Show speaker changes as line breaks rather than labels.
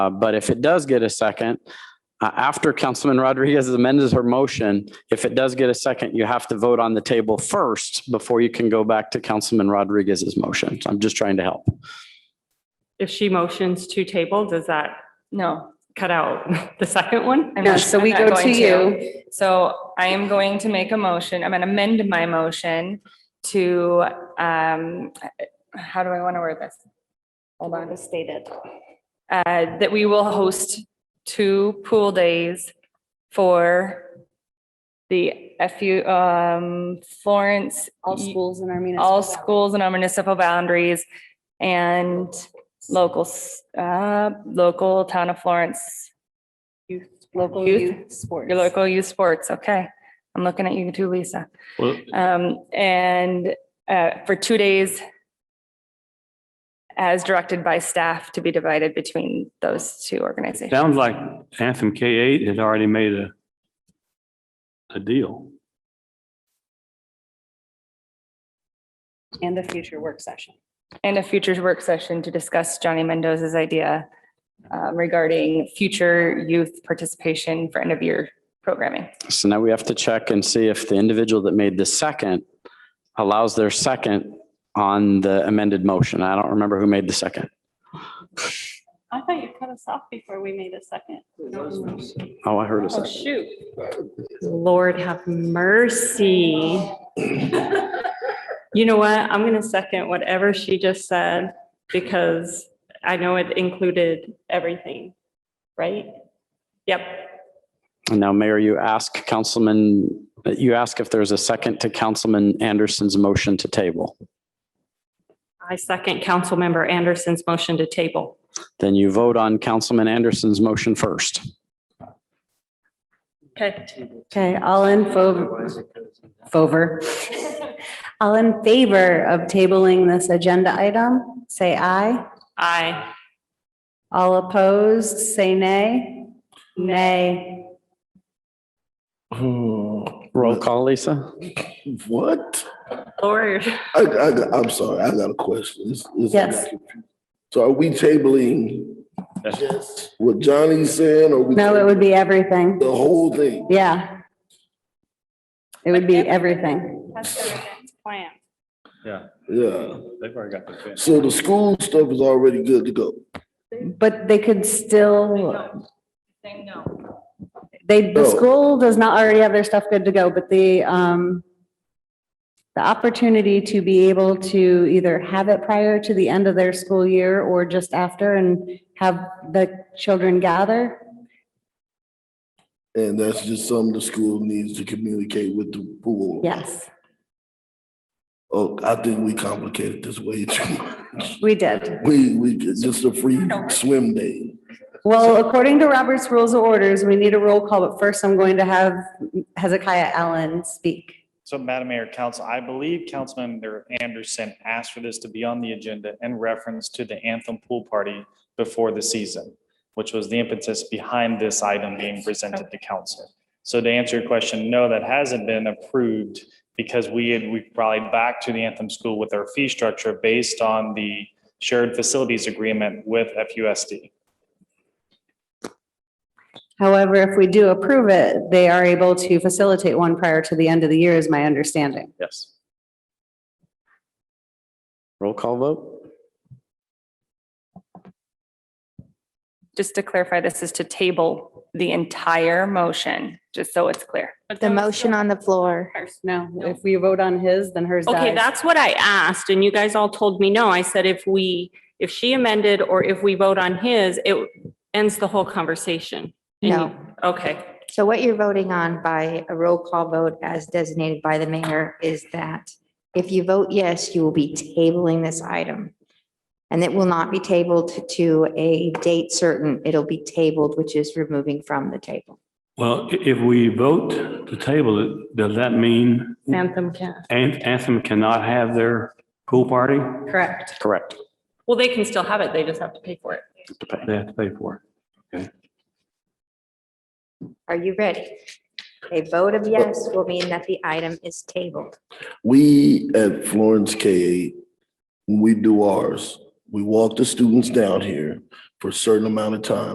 Uh, But if it does get a second, uh, after Councilman Rodriguez amends her motion, if it does get a second, you have to vote on the table first before you can go back to Councilman Rodriguez's motion. So I'm just trying to help.
If she motions to table, does that
No,
cut out the second one?
I'm
No,
not-
so we
I'm not
go to
going
you.
So I am going to make a motion, I'm going to amend my motion to, um, how do I want to word this? Hold on. Stated. Uh, that we will host two pool days for the FU, um, Florence.
All schools in our municipal.
all
boundaries.
schools and our municipal boundaries and local, s- uh, local town of Florence,
Youth, local
Youth.
youth sports.
your local youth sports. Okay. I'm looking at you too, Lisa.
Well,
Um, and, uh, for two days as directed by staff to be divided between those two organizations.
sounds like Anthem K eight has already made a a deal.
And a future work session.
And a future work session to discuss Johnny Mendoza's idea um, regarding future youth participation for end of year programming.
So now we have to check and see if the individual that made the second allows their second on the amended motion. I don't remember who made the second.
I thought you cut us off before we made a second.
Oh, I heard a second.
Shoot.
Lord have mercy. You know what? I'm going to second whatever she just said because I know it included everything, right? Yep.
And now, Mayor, you ask Councilman, you ask if there's a second to Councilman Anderson's motion to table.
I second Councilmember Anderson's motion to table.
Then you vote on Councilman Anderson's motion first.
Okay.
Okay, all in favor, favor. All in favor of tabling this agenda item, say aye.
Aye.
All opposed, say nay. Nay.
Oh,
Roll call, Lisa?
What?
Lord.
I, I, I'm sorry, I got a question. This- this-
Yes.
So are we tabling just what Johnny's saying, or we?
No, it would be everything.
The whole thing?
Yeah. It would be everything.
That's the next plan.
Yeah.
They've already got the fence.
So the school stuff is already good to go.
But they could still,
Saying no.
they, the
No.
school does not already have their stuff good to go, but the, um, the opportunity to be able to either have it prior to the end of their school year or just after and have the children gather.
And that's just something the school needs to communicate with the pool.
Yes,
Oh, I think we complicated this way too much.
we did.
We, we, just a free swim day.
Well, according to Robert's Rules of Orders, we need a roll call, but first I'm going to have Hezekiah Allen speak.
So Madam Mayor, Council, I believe Councilmember Anderson asked for this to be on the agenda in reference to the Anthem Pool Party before the season, which was the impetus behind this item being presented to council. So to answer your question, no, that hasn't been approved because we had, we probably back to the Anthem School with our fee structure based on the shared facilities agreement with FUSD.
However, if we do approve it, they are able to facilitate one prior to the end of the year, is my understanding.
Yes.
Roll call vote?
Just to clarify, this is to table the entire motion, just so it's clear.
The motion on the floor.
No, if we vote on his, then hers
Okay,
dies.
that's what I asked and you guys all told me no. I said if we, if she amended or if we vote on his, it ends the whole conversation. And you-
No.
Okay,
So what you're voting on by a roll call vote as designated by the mayor is that if you vote yes, you will be tabling this item. And it will not be tabled to a date certain. It'll be tabled, which is removing from the table.
Well, i- if we vote to table it, does that mean
Anthem can.
An- Anthem cannot have their pool party?
Correct.
Correct.
Well, they can still have it. They just have to pay for it.
They have to pay for it.
Are you ready? A vote of yes will mean that the item is tabled.
We at Florence K eight, when we do ours, we walk the students down here for a certain amount of time.